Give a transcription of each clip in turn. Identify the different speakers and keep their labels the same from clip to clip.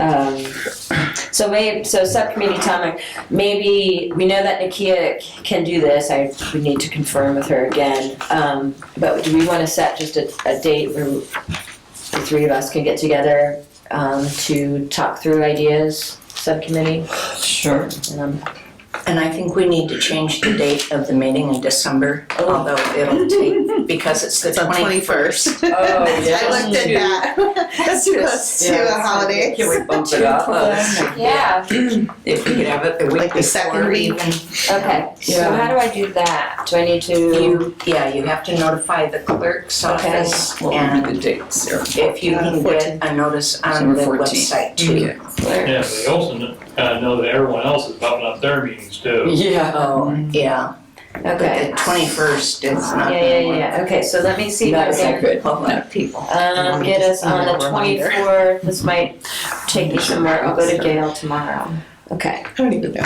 Speaker 1: Um, so maybe, so subcommittee topic, maybe, we know that Nakia c- can do this, I, we need to confirm with her again. Um, but do we wanna set just a, a date where the three of us can get together, um, to talk through ideas, subcommittee? Um,
Speaker 2: Sure.
Speaker 1: And I'm
Speaker 2: And I think we need to change the date of the meeting in December, although it'll take, because it's the
Speaker 3: It's on
Speaker 2: twenty first.
Speaker 3: 21st.
Speaker 4: Oh,
Speaker 3: I looked at that. That's too close to a holiday.
Speaker 4: Can we bump it up? Uh,
Speaker 1: Yeah,
Speaker 2: If we could have it the
Speaker 3: Like
Speaker 2: week
Speaker 3: the second
Speaker 2: before
Speaker 3: week.
Speaker 2: even.
Speaker 1: okay, so
Speaker 4: Yeah.
Speaker 1: how do I do that? Do I need to?
Speaker 2: You, yeah, you have to notify the clerk's
Speaker 1: Okay.
Speaker 2: office
Speaker 4: What would be
Speaker 2: and
Speaker 4: the dates there?
Speaker 2: if you can get a notice on the
Speaker 4: December 14th.
Speaker 2: website too.
Speaker 5: Yeah, but they also kind of know that everyone else is bumping up their meetings too.
Speaker 4: Yeah.
Speaker 2: Oh, yeah, but
Speaker 1: Okay,
Speaker 2: the twenty first is
Speaker 1: yeah,
Speaker 2: not
Speaker 1: yeah,
Speaker 2: gonna
Speaker 1: yeah,
Speaker 2: work.
Speaker 1: yeah, okay, so let me see. if I
Speaker 2: Not
Speaker 1: can-
Speaker 2: a good public people.
Speaker 1: Um, get us on the twenty-fourth, this might take me somewhere, I'll go to Gail tomorrow. Okay,
Speaker 3: I don't even know.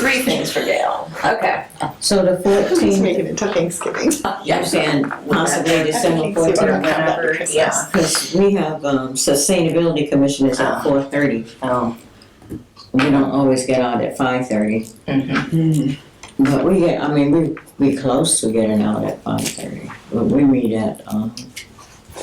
Speaker 1: three things for Gail, okay.
Speaker 6: So the
Speaker 3: Just
Speaker 6: fourteenth,
Speaker 3: making it till Thanksgiving.
Speaker 7: Yeah, and possibly December
Speaker 3: Thanksgiving,
Speaker 7: fourteenth,
Speaker 3: November,
Speaker 2: Whatever,
Speaker 4: uh,
Speaker 2: yeah.
Speaker 7: because we have, um, Sustainability Commission is
Speaker 4: Uh-huh.
Speaker 2: Ah.
Speaker 7: at four thirty.
Speaker 2: Oh,
Speaker 7: We don't always get out at five thirty,
Speaker 2: mhm.
Speaker 7: but we get, I mean, we, we close to getting out at five thirty, but we meet at, um,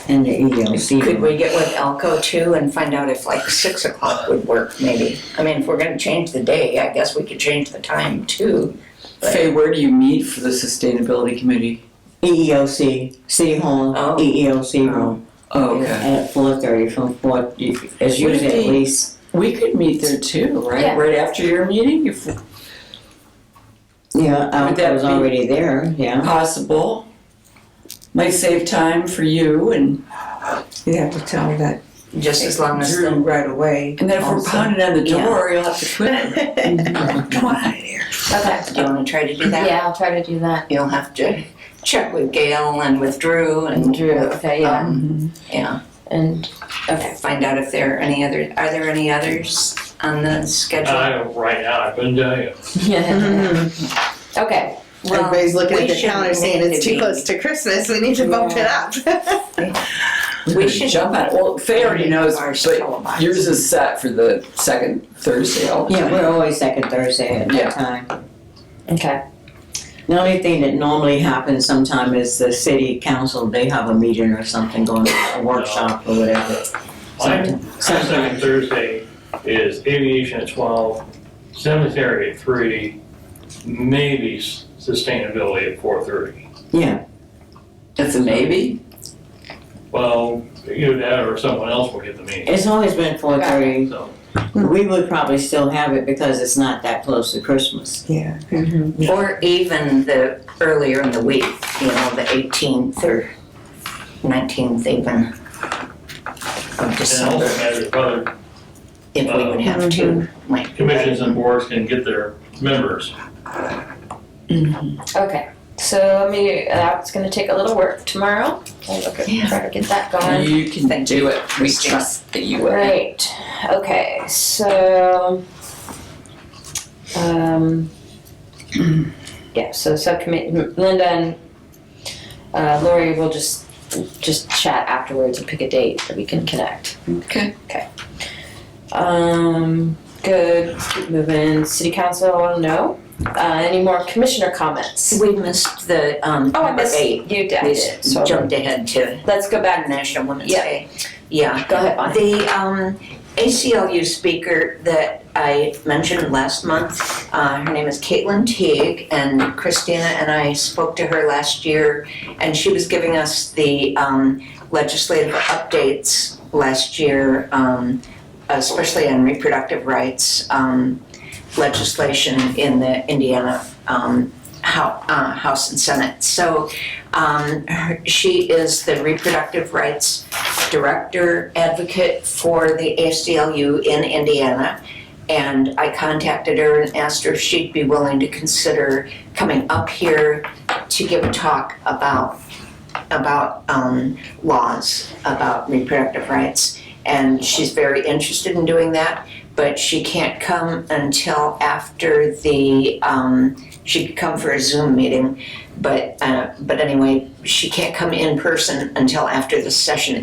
Speaker 7: in the E
Speaker 2: Could
Speaker 7: EOC.
Speaker 2: we get with Elko too and find out if like six o'clock would work maybe? I mean, if we're gonna change the day, I guess we could change the time too.
Speaker 4: Faye, where do you meet for the sustainability committee?
Speaker 7: E EEOC, City Hall,
Speaker 2: Oh.
Speaker 7: EEOC room,
Speaker 4: Oh, okay.
Speaker 7: at four thirty from four, it's
Speaker 4: Would it
Speaker 7: usually at
Speaker 4: be-
Speaker 7: least,
Speaker 4: We could meet there too,
Speaker 1: Yeah.
Speaker 4: right? Right after your meeting, if
Speaker 7: yeah, I
Speaker 4: Would that
Speaker 7: was
Speaker 4: be-
Speaker 7: already there, yeah.
Speaker 4: possible. Might save time for you and,
Speaker 8: You have to tell that
Speaker 2: Just as long as
Speaker 8: Drew
Speaker 2: the,
Speaker 8: right away.
Speaker 4: and then if we're
Speaker 8: Also.
Speaker 4: pounding on the door, you'll have to quit. Come on out of here.
Speaker 1: Okay,
Speaker 2: do you wanna try to do that?
Speaker 1: yeah, I'll try to do that.
Speaker 2: You'll have to check with Gail and with Drew and.
Speaker 1: Drew,
Speaker 2: with,
Speaker 1: okay, yeah.
Speaker 2: um, Yeah,
Speaker 1: And, okay,
Speaker 2: find out if there are any other, are there any others on the schedule?
Speaker 4: Uh,
Speaker 5: I don't, right now, I couldn't tell you.
Speaker 1: yeah, okay, well,
Speaker 3: Everybody's looking
Speaker 2: we
Speaker 3: at the
Speaker 2: should
Speaker 3: calendar saying
Speaker 2: make
Speaker 3: it's
Speaker 2: it
Speaker 3: too
Speaker 2: be-
Speaker 3: close to Christmas. We need to bump it up.
Speaker 2: We should-
Speaker 4: Jump on it. Well, Faye already knows,
Speaker 2: Ours
Speaker 4: but
Speaker 2: televised.
Speaker 4: yours is set for the second Thursday all the
Speaker 7: Yeah,
Speaker 4: time.
Speaker 7: we're always second Thursday at
Speaker 4: Yeah.
Speaker 7: that time.
Speaker 1: okay,
Speaker 7: The only thing that normally happens sometime is the city council, they have a meeting or something going on, a workshop or whatever.
Speaker 5: My
Speaker 7: Sometime-
Speaker 5: second Thursday is aviation at twelve, cemetery at three, maybe s- sustainability at four thirty.
Speaker 7: Yeah,
Speaker 4: That's a maybe?
Speaker 5: Well, either that or someone else will get the meeting,
Speaker 7: it's always been four thirty.
Speaker 5: so.
Speaker 7: We would probably still have it because it's not that close to Christmas.
Speaker 8: Yeah.
Speaker 2: Or even the, earlier in the week, you know, the eighteenth or nineteenth even of
Speaker 5: And also
Speaker 2: December,
Speaker 5: matters if other
Speaker 2: if we would have to, like.
Speaker 5: commissions and boards can get their members.
Speaker 1: okay. So, I mean, that's gonna take a little work tomorrow, I'll look at, try to get that going.
Speaker 4: You can do it. We
Speaker 2: Christine.
Speaker 4: trust that you will.
Speaker 1: Right, okay, so, um, yeah, so subcommittee, Linda and uh, Lori will just, just chat afterwards and pick a date that we can connect.
Speaker 4: Okay.
Speaker 1: Okay. Um, good, let's keep moving, city council, no, uh, any more commissioner comments?
Speaker 2: We missed the, um,
Speaker 1: Oh, I
Speaker 2: number
Speaker 1: missed,
Speaker 2: eight.
Speaker 1: you did, I
Speaker 2: We
Speaker 1: did, so,
Speaker 2: jumped ahead to
Speaker 1: let's go
Speaker 2: Bad
Speaker 1: back,
Speaker 2: National Women's
Speaker 1: Yeah.
Speaker 2: Day. Yeah.
Speaker 1: go ahead, Bonnie.
Speaker 2: The um, ACLU speaker that I mentioned last month, uh, her name is Caitlin Teague, and Christina and I spoke to her last year, and she was giving us the um, legislative updates last year, um, especially on reproductive rights um, legislation in the Indiana um, Hou- uh, House and Senate. So um, her, she is the reproductive rights director advocate for the ACLU in Indiana. And I contacted her and asked her if she'd be willing to consider coming up here to give a talk about, about um, laws, about reproductive rights. And she's very interested in doing that, but she can't come until after the, um, she could come for a Zoom meeting. But, uh, but anyway, she can't come in person until after the session